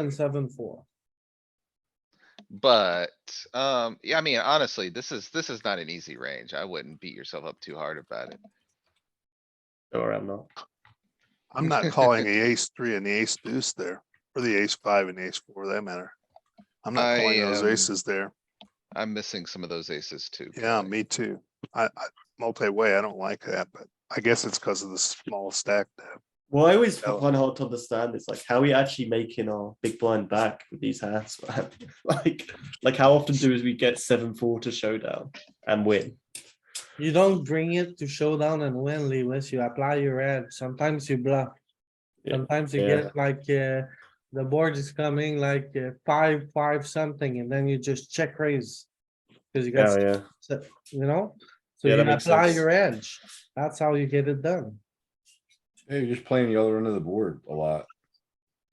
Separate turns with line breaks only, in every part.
and seven, four.
But, um, yeah, I mean, honestly, this is, this is not an easy range. I wouldn't beat yourself up too hard about it.
Or I'm not.
I'm not calling the ace three and the ace deuce there, or the ace five and the ace four, for that matter. I'm not calling
I,
those
um,
aces there.
I'm missing some of those aces too.
Yeah,
probably.
me too. I, I, multi-way, I don't like that, but I guess it's because of the small stack. there.
Well, I always
Oh.
find hard to understand. It's like how are we actually making our big blind back with these hands, man? like, like how often do we get seven four to showdown and win?
You don't bring it to showdown and win, Lewis. You apply your edge. Sometimes you bluff.
Yeah.
Sometimes you
Yeah.
get like, uh, the board is coming like uh, five, five something, and then you just check raise. Cause you got,
yeah,
s- you know, so
Yeah,
you
that makes
apply
sense.
your edge. That's how you get it done.
Yeah, you're just playing the other end of the board a lot.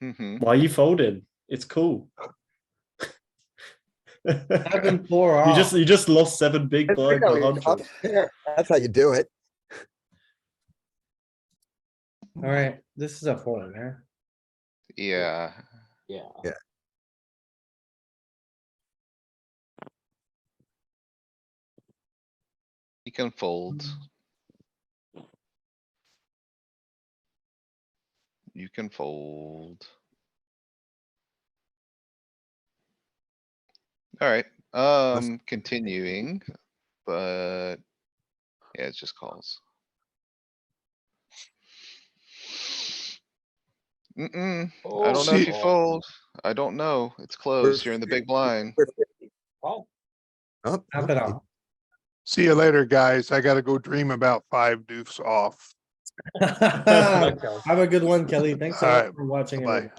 Mhm.
Why are you folding? It's cool. you
Seven, four
just
off.
you just lost seven big
That's
blind.
how
by
you-
100.
That's how you do it.
Alright, this is a four, man.
Yeah, you can fold. Mm. You can fold. Alright, um, continuing, but. Yeah, it's just calls. Mm-mm, I don't know if you
shit.
fold. I don't know. It's closed. You're in the big blind.
Oh,
Tap it
okay.
off.
See you later, guys. I gotta go dream about five deuce off.
Have a good one, Kelly. Thanks a
All
lot
right.
for watching.
Bye.
everybody.